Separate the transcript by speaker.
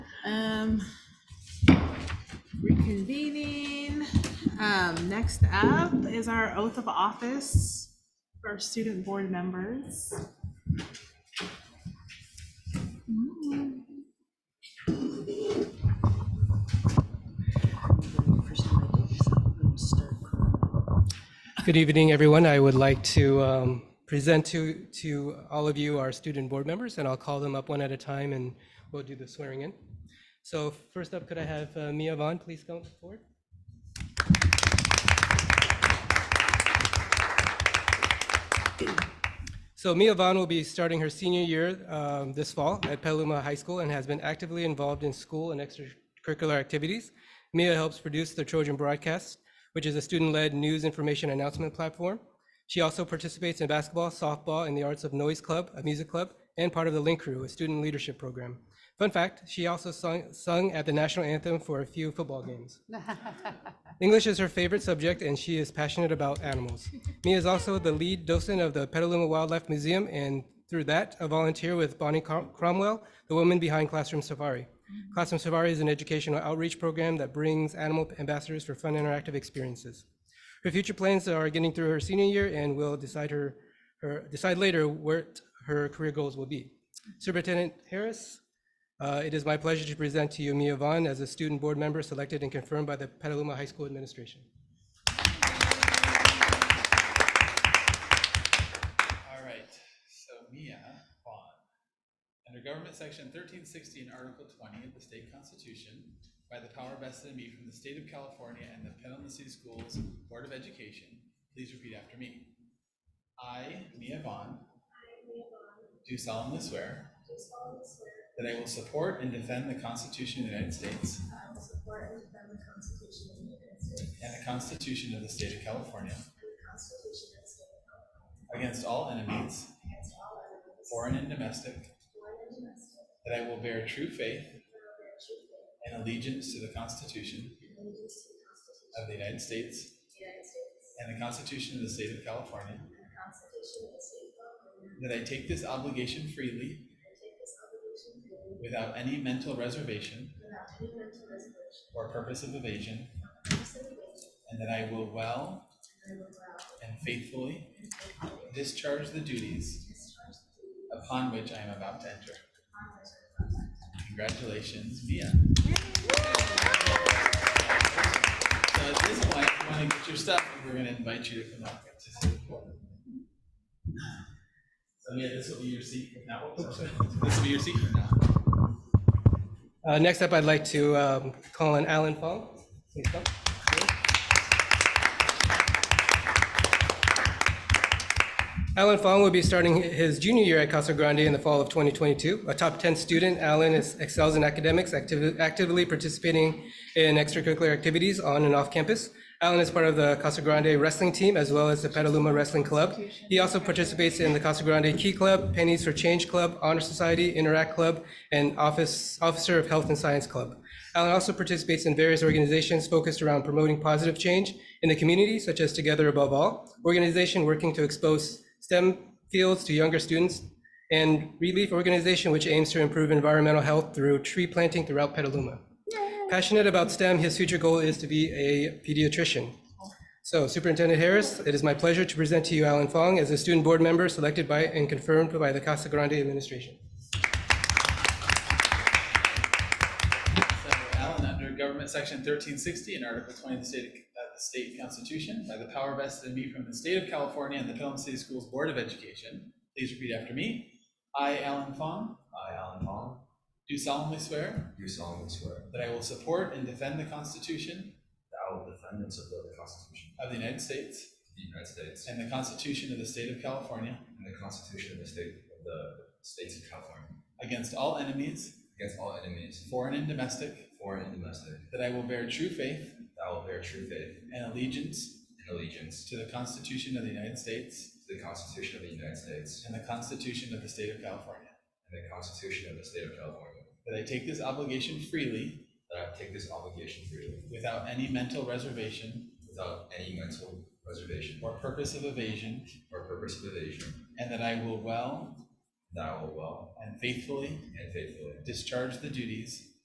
Speaker 1: Um, reconvening. Um, next up is our oath of office for student board members.
Speaker 2: First time I did this, I'm gonna start crying.
Speaker 3: Good evening, everyone. I would like to um, present to, to all of you our student board members, and I'll call them up one at a time, and we'll do the swearing in. So first up, could I have uh, Mia Vaughn, please come forward? So Mia Vaughn will be starting her senior year um, this fall at Petaluma High School and has been actively involved in school and extracurricular activities. Mia helps produce the Trojan Broadcast, which is a student-led news information announcement platform. She also participates in basketball, softball, and the Arts of Noise Club, a music club, and part of the Link Crew, a student leadership program. Fun fact, she also sung, sung at the national anthem for a few football games. English is her favorite subject, and she is passionate about animals. Mia is also the lead docent of the Petaluma Wildlife Museum, and through that, a volunteer with Bonnie Crom- Cromwell, the woman behind Classroom Safari. Classroom Safari is an educational outreach program that brings animal ambassadors for fun, interactive experiences. Her future plans are getting through her senior year, and will decide her, her decide later what her career goals will be. Superintendent Harris, uh, It is my pleasure to present to you Mia Vaughn as a student board member selected and confirmed by the Petaluma High School Administration.
Speaker 4: All right, so Mia Vaughn. Under Government Section thirteen sixty and Article twenty of the state constitution, by the power vested in me from the state of California and the Petaluma City Schools Board of Education, please repeat after me. I, Mia Vaughn. Do solemnly swear. That I will support and defend the Constitution of the United States
Speaker 5: I will support and defend the Constitution of the United States
Speaker 4: and the Constitution of the state of California
Speaker 5: and the Constitution of the State of California
Speaker 4: against all enemies,
Speaker 5: against all enemies,
Speaker 4: foreign and domestic,
Speaker 5: foreign and domestic,
Speaker 4: that I will bear true faith
Speaker 5: and will bear true faith
Speaker 4: and allegiance to the Constitution
Speaker 5: and allegiance to the Constitution
Speaker 4: of the United States
Speaker 5: of the United States
Speaker 4: and the Constitution of the State of California,
Speaker 5: and the Constitution of the State of California,
Speaker 4: that I take this obligation freely
Speaker 5: and I take this obligation freely
Speaker 4: without any mental reservation
Speaker 5: without any mental reservation
Speaker 4: or purpose of evasion,
Speaker 5: or purpose of evasion,
Speaker 4: and that I will well
Speaker 5: and I will well
Speaker 4: and faithfully
Speaker 5: and faithfully
Speaker 4: discharge the duties
Speaker 5: discharge the duties
Speaker 4: upon which I am about to enter.
Speaker 5: upon which I am about to enter.
Speaker 4: Congratulations, Mia. So at this point, you want to get your stuff, and we're going to invite you to come up to the podium. So yeah, this will be your seat from now on. This will be your seat from now. on.
Speaker 3: Uh, Next up, I'd like to um, call on Alan Fong. Please come. Alan Fong will be starting his junior year at Casa Grande in the fall of 2022. A top 10 student, Alan is- excels in academics, activ- actively participating in extracurricular activities on and off campus. Alan is part of the Casa Grande wrestling team as well as the Petaluma Wrestling Club. He also participates in the Casa Grande Key Club, Pennies for Change Club, Honor Society, Interact Club, and Office Officer of Health and Science Club. Alan also participates in various organizations focused around promoting positive change in the community, such as Together Above All, organization working to expose STEM fields to younger students, and Relief Organization, which aims to improve environmental health through tree planting throughout Petaluma. Passionate about STEM, his future goal is to be a pediatrician. So Superintendent Harris, it is my pleasure to present to you Alan Fong as a student board member selected by and confirmed by the Casa Grande administration.
Speaker 4: So Alan, under Government Section thirteen sixty and Article twenty of the state, of the state constitution, by the power vested in me from the state of California and the Pelham City Schools Board of Education, please repeat after me. I, Alan Fong,
Speaker 6: I, Alan Fong,
Speaker 4: do solemnly swear
Speaker 6: do solemnly swear
Speaker 4: that I will support and defend the Constitution
Speaker 6: that I will defend and support the Constitution
Speaker 4: of the United States
Speaker 6: of the United States
Speaker 4: and the Constitution of the state of California
Speaker 6: and the Constitution of the State of the States of California
Speaker 4: against all enemies,
Speaker 6: against all enemies,
Speaker 4: foreign and domestic,
Speaker 6: foreign and domestic,
Speaker 4: that I will bear true faith
Speaker 6: that I will bear true faith
Speaker 4: and allegiance
Speaker 6: and allegiance
Speaker 4: to the Constitution of the United States
Speaker 6: to the Constitution of the United States
Speaker 4: and the Constitution of the state of California,
Speaker 6: and the Constitution of the State of California,
Speaker 4: that I take this obligation freely
Speaker 6: that I take this obligation freely
Speaker 4: without any mental reservation
Speaker 6: without any mental reservation
Speaker 4: or purpose of evasion,
Speaker 6: or purpose of evasion,
Speaker 4: and that I will well
Speaker 6: that I will well
Speaker 4: and faithfully
Speaker 6: and faithfully
Speaker 4: discharge the duties